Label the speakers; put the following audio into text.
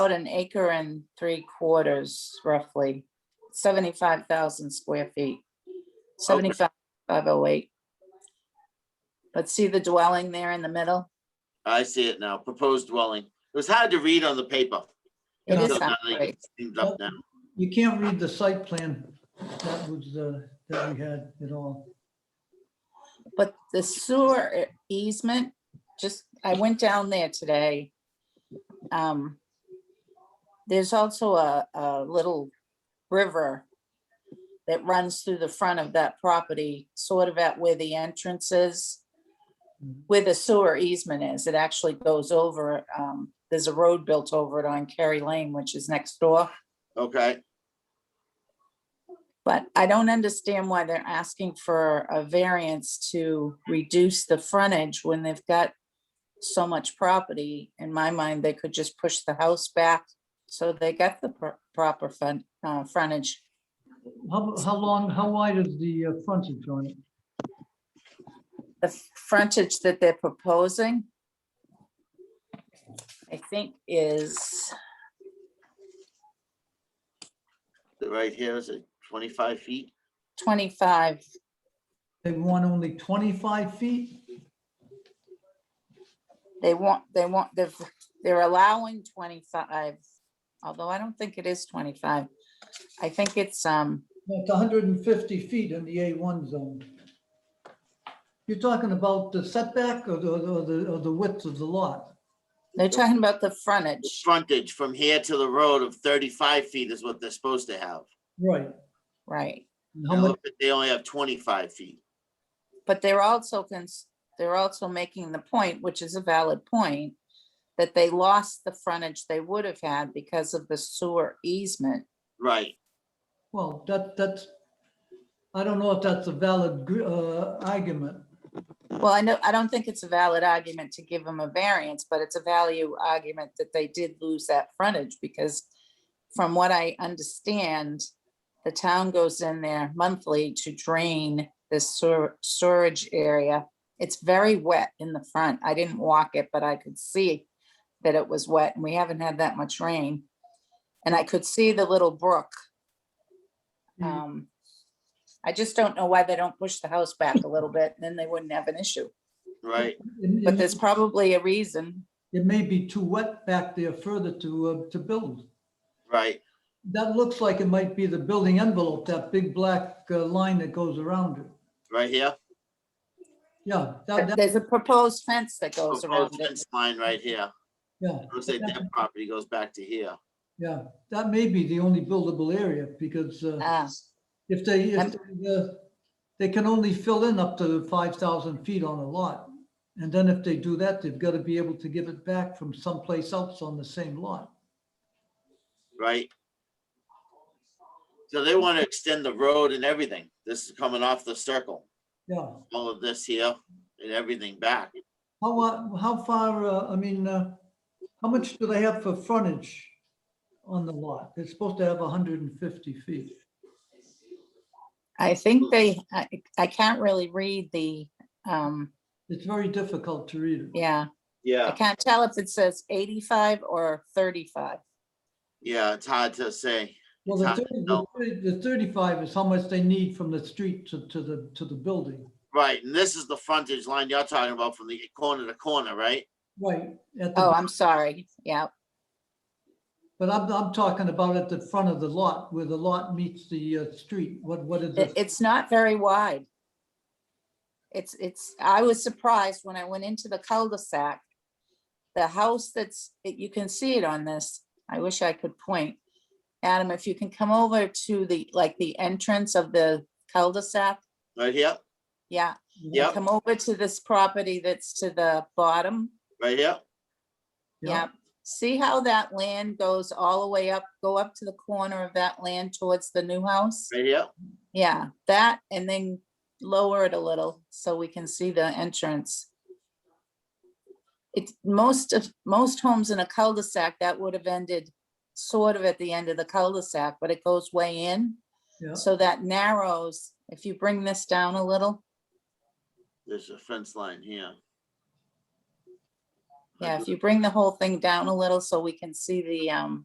Speaker 1: about an acre and three quarters roughly, seventy-five thousand square feet. Seventy-five, five oh eight. But see the dwelling there in the middle?
Speaker 2: I see it now, proposed dwelling. It was hard to read on the paper.
Speaker 1: It
Speaker 2: So
Speaker 1: is
Speaker 2: now
Speaker 1: not
Speaker 2: they
Speaker 1: great.
Speaker 2: get cleaned up now.
Speaker 3: You can't read the site plan that was, uh, that we had at all.
Speaker 1: But the sewer easement, just, I went down there today. Um, There's also a, a little river that runs through the front of that property, sort of at where the entrance is. Where the sewer easement is, it actually goes over, um, there's a road built over it on Kerry Lane, which is next door.
Speaker 2: Okay,
Speaker 1: But I don't understand why they're asking for a variance to reduce the frontage when they've got so much property. In my mind, they could just push the house back so they get the pro- proper fun, uh, frontage.
Speaker 3: How, how long, how wide is the uh, frontage on it?
Speaker 1: The frontage that they're proposing, I think is,
Speaker 2: right here is it twenty-five feet?
Speaker 1: 25,
Speaker 3: They want only 25 feet?
Speaker 1: they want, they want, they're, they're allowing 25, although I don't think it is 25. I think it's, um,
Speaker 3: It's 150 feet in the A1 zone. You're talking about the setback or the, or the, or the width of the lot?
Speaker 1: They're talking about the
Speaker 2: The
Speaker 1: frontage,
Speaker 2: Frontage from here to the road of thirty-five feet is what they're supposed to have.
Speaker 3: Right.
Speaker 1: right?
Speaker 3: And How
Speaker 2: Now,
Speaker 3: much,
Speaker 2: look, They only have twenty-five feet.
Speaker 1: But they're also, cons- they're also making the point, which is a valid point, that they lost the frontage they would have had because of the sewer easement.
Speaker 2: Right,
Speaker 3: well, that, that's, I don't know if that's a valid gr- uh, argument.
Speaker 1: Well, I know, I don't think it's a valid argument to give them a variance, but it's a value argument that they did lose that frontage because from what I understand, the town goes in there monthly to drain this sewer, storage area. It's very wet in the front. I didn't walk it, but I could see that it was wet and we haven't had that much rain. And I could see the little brook.
Speaker 3: Mhm.
Speaker 1: Um, I just don't know why they don't push the house back a little bit, then they wouldn't have an issue.
Speaker 2: right.
Speaker 3: It-
Speaker 1: But
Speaker 3: it-
Speaker 1: there's probably a reason.
Speaker 3: It may be too wet back there further to, uh, to build.
Speaker 2: Right,
Speaker 3: That looks like it might be the building envelope, that big black uh, line that goes around it.
Speaker 2: right here.
Speaker 3: Yeah, Oh, that,
Speaker 1: But
Speaker 3: that,
Speaker 1: There's a proposed fence that goes around
Speaker 2: Proposed
Speaker 1: it.
Speaker 2: fence Line right here.
Speaker 3: yeah,
Speaker 2: Looks like their property goes back to here.
Speaker 3: yeah. That may be the only buildable area because uh,
Speaker 1: Ah,
Speaker 3: if they, if
Speaker 1: and-
Speaker 3: they, uh, they can only fill in up to 5,000 feet on a lot. And then if they do that, they've got to be able to give it back from someplace else on the same lot.
Speaker 2: right? So they want to extend the road and everything. This is coming off the circle,
Speaker 3: Yeah.
Speaker 2: all of this here and everything back.
Speaker 3: How, wa- how far, uh, I mean, uh, how much do they have for frontage on the lot? They're supposed to have 150 feet.
Speaker 1: I think they, I, I can't really read the, um,
Speaker 3: It's very difficult to read it.
Speaker 1: yeah, I
Speaker 2: Yeah,
Speaker 1: can't tell if it says eighty-five or thirty-five.
Speaker 2: yeah, it's hard to say.
Speaker 3: Well, the
Speaker 2: Huh,
Speaker 3: 30 the
Speaker 2: no.
Speaker 3: 30 the 35 is how much they need from the street to, to the, to the building.
Speaker 2: Right, and this is the frontage line you're talking about from the corner to corner, right?
Speaker 3: Right. at the-
Speaker 1: Oh, I'm sorry. Yeah,
Speaker 3: But I'm, I'm talking about at the front of the lot where the lot meets the uh, street. What, what is
Speaker 1: it,
Speaker 3: it?
Speaker 1: it's not very wide. It's, it's, I was surprised when I went into the cul-de-sac. The house that's, that you can see it on this, I wish I could point. Adam, if you can come over to the, like, the entrance of the cul-de-sac,
Speaker 2: Right here,
Speaker 1: yeah.
Speaker 2: Yep.
Speaker 1: Come over to this property that's to the bottom,
Speaker 2: right here,
Speaker 1: yeah. See how that land goes all the way up, go up to the corner of that land towards the new house?
Speaker 2: right here.
Speaker 1: Yeah, that and then lower it a little so we can see the entrance. It's most of, most homes in a cul-de-sac, that would have ended sort of at the end of the cul-de-sac, but it goes way in.
Speaker 3: Yeah.
Speaker 1: So that narrows, if you bring this down a little,
Speaker 2: There's a fence line here.
Speaker 1: Yeah, if you bring the whole thing down a little so we can see the, um,